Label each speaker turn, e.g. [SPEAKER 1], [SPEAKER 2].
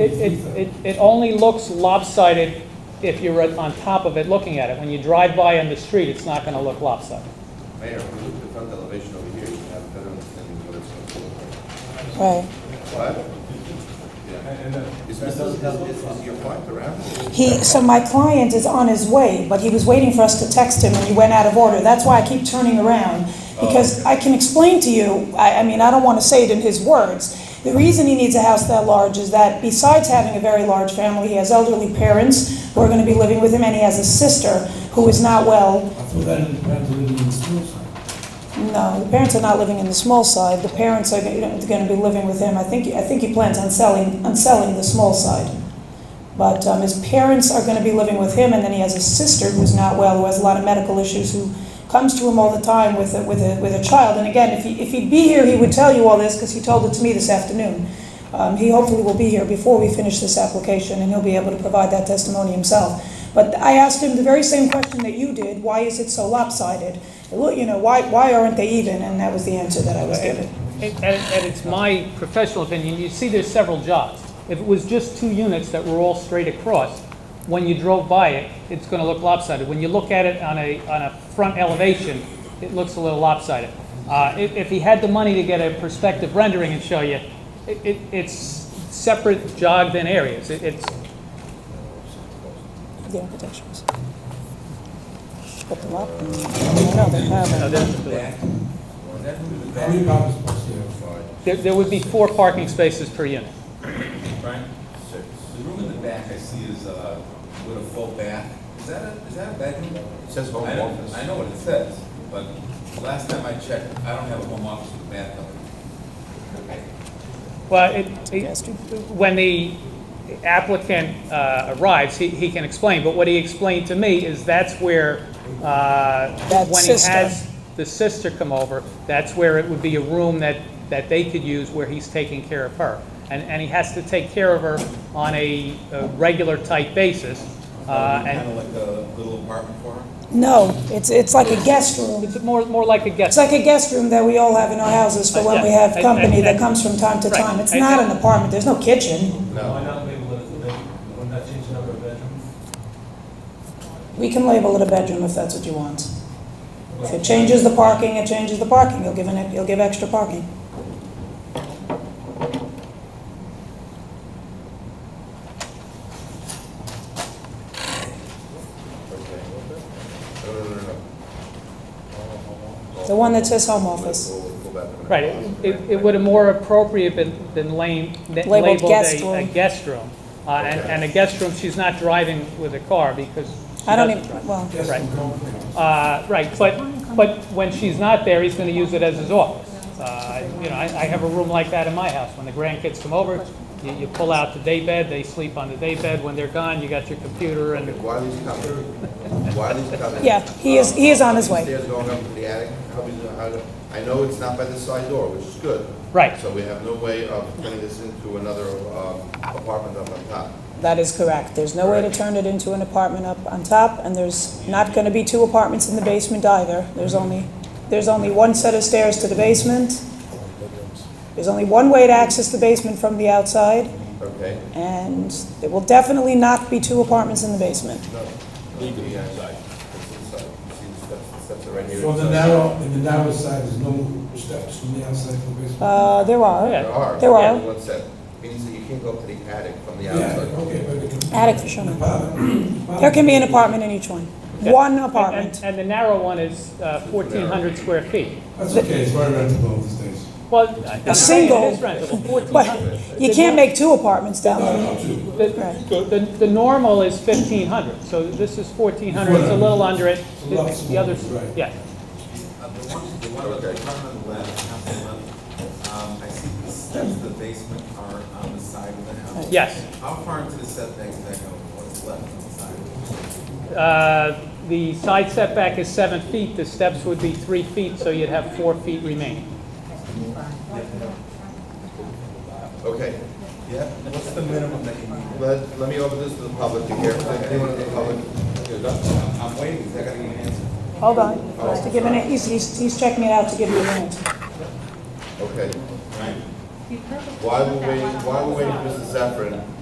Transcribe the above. [SPEAKER 1] It, it, it- it only looks lopsided if you're at- on top of it looking at it. When you drive by on the street, it's not gonna look lopsided.
[SPEAKER 2] Mayor, if you look at the front elevation over here, you have a better understanding of what it's going to look like.
[SPEAKER 3] Right.
[SPEAKER 2] What? Yeah. Is Mr. Is, is, is your point around?
[SPEAKER 3] He, so my client is on his way, but he was waiting for us to text him and he went out of order. That's why I keep turning around. Because I can explain to you, I, I mean, I don't want to say it in his words. The reason he needs a house that large is that besides having a very large family, he has elderly parents who are going to be living with him and he has a sister who is not well.
[SPEAKER 4] I thought that it depends on living in the school side.
[SPEAKER 3] No, the parents are not living in the small side. The parents are going to be living with him. I think, I think he plans on selling, on selling the small side. But um, his parents are going to be living with him, and then he has a sister who's not well, who has a lot of medical issues, who comes to him all the time with a, with a, with a child. And again, if, he, if he'd be here, he would tell you all this because he told it to me this afternoon. Um, he hopefully will be here before we finish this application, and he'll be able to provide that testimony himself. But I asked him the very same question that you did: Why is it so lopsided? Look, you know, why why aren't they even? And that was the answer that I was given.
[SPEAKER 1] And, and it's my professional opinion, you see there's several jobs. If it was just two units that were all straight across, when you drove by it, it's gonna look lopsided. When you look at it on a, on a front elevation, it looks a little lopsided. Uh, if, if he had the money to get a perspective rendering and show you, it, it, it's separate jogged in areas. It- It's,
[SPEAKER 3] The architectures. But the lop- no, they haven't.
[SPEAKER 1] no, there's-
[SPEAKER 4] How many parking spots do you have?
[SPEAKER 1] There, there would be four parking spaces per unit.
[SPEAKER 5] Frank? Six. The room in the back I see is uh, with a full bath. Is that a, is that a bedroom?
[SPEAKER 2] It says home
[SPEAKER 5] I know-
[SPEAKER 2] office.
[SPEAKER 5] I know what it says, but last time I checked, I don't have a home office with a bathtub.
[SPEAKER 1] Well, it, it- when the applicant uh, arrives, he, he can explain, but what he explained to me is that's where, uh,
[SPEAKER 3] That
[SPEAKER 1] when he
[SPEAKER 3] sister.
[SPEAKER 1] has the sister come over, that's where it would be a room that, that they could use where he's taking care of her. And, and he has to take care of her on a, a regular type basis, uh,
[SPEAKER 5] Kind
[SPEAKER 1] and
[SPEAKER 5] of like a little apartment for her.
[SPEAKER 3] No, it's, it's like a guest room.
[SPEAKER 1] it's more, more like a guest.
[SPEAKER 3] It's like a guest room that we all have in our houses for when we have company that comes from time to time. It's not an apartment, there's no kitchen.
[SPEAKER 2] No.
[SPEAKER 6] Why not label it as a bedroom? Wouldn't that change the number of bedrooms?
[SPEAKER 3] We can label it a bedroom if that's what you want. If it changes the parking, it changes the parking, you'll give an, you'll give extra parking.
[SPEAKER 2] Okay. No, no, no, no.
[SPEAKER 3] The one that says home office.
[SPEAKER 2] We'll- we'll go back to the-
[SPEAKER 1] Right, it- it, it would have more appropriate been, been lame, that
[SPEAKER 3] Labeled
[SPEAKER 1] labeled
[SPEAKER 3] guest
[SPEAKER 1] a, a
[SPEAKER 3] room.
[SPEAKER 1] guest room. Uh, and,
[SPEAKER 2] Okay.
[SPEAKER 1] and a guest room, she's not driving with a car because she
[SPEAKER 3] I don't
[SPEAKER 1] doesn't
[SPEAKER 3] even,
[SPEAKER 1] drive.
[SPEAKER 3] well,
[SPEAKER 4] Just
[SPEAKER 1] Right.
[SPEAKER 4] for company.
[SPEAKER 1] Uh, right, but, but when she's not there, he's gonna use it as his office. Uh, you know, I, I have a room like that in my house. When the grandkids come over, you, you pull out the day bed, they sleep on the day bed. When they're gone, you got your computer and,
[SPEAKER 2] Wiley's coming. Wiley's coming.
[SPEAKER 3] Yeah, he is- he is on his way.
[SPEAKER 2] Stairs going up to the attic. How we do- how do- I know it's not by the side door, which is good.
[SPEAKER 1] Right.
[SPEAKER 2] So we have no way of turning this into another um, apartment up on top.
[SPEAKER 3] that is correct. There's no way to turn it into an apartment up on top, and there's not gonna be two apartments in the basement either. There's only, there's only one set of stairs to the basement. There's only one way to access the basement from the outside.
[SPEAKER 2] Okay?
[SPEAKER 3] And there will definitely not be two apartments in the basement.
[SPEAKER 2] No. Legally outside. It's inside. You see the steps, the steps are right here.
[SPEAKER 4] For the
[SPEAKER 2] inside.
[SPEAKER 4] narrow, in the narrow side, there's no steps from the outside to the basement.
[SPEAKER 3] Uh, there
[SPEAKER 1] Yeah.
[SPEAKER 3] are.
[SPEAKER 2] There are.
[SPEAKER 3] There are.
[SPEAKER 2] One set. Means that you can't go up to the attic from the
[SPEAKER 4] Yeah,
[SPEAKER 2] outside.
[SPEAKER 4] okay, but it can.
[SPEAKER 3] Attic for sure.
[SPEAKER 4] The bottom-
[SPEAKER 3] There can be an apartment in each one. One apartment.
[SPEAKER 1] and, and the narrow one is uh, fourteen hundred square feet.
[SPEAKER 4] That's okay, it's very rentable these days.
[SPEAKER 1] Well, I- I'm saying it is rentable.
[SPEAKER 3] But you can't make two apartments down
[SPEAKER 4] No,
[SPEAKER 3] there.
[SPEAKER 4] no, two.
[SPEAKER 3] Right.
[SPEAKER 1] The, the, the normal is fifteen hundred, so this is fourteen hundred, it's a little under it. The
[SPEAKER 4] Lots
[SPEAKER 1] the others,
[SPEAKER 4] more, right.
[SPEAKER 1] yeah.
[SPEAKER 5] Uh, The one, the one, the one on the left, house on the left, um, I see the steps to the basement are on the side of the house.
[SPEAKER 1] Yes.
[SPEAKER 5] How far into the setback is that going? What's left on the side?
[SPEAKER 1] Uh, The side setback is seven feet, the steps would be three feet, so you'd have four feet remaining.
[SPEAKER 2] Okay.
[SPEAKER 5] Yeah, what's the minimum that you need?
[SPEAKER 2] Let, let me open this to the public to hear. Anyone in the public?
[SPEAKER 5] I'm I'm waiting, 'cause I gotta give you an answer.
[SPEAKER 3] Hold on. To give an, he's, he's he's checking it out to give you an answer.
[SPEAKER 2] Okay.
[SPEAKER 5] Right.
[SPEAKER 2] Why we're waiting, why we're waiting for Mr. Zephyrin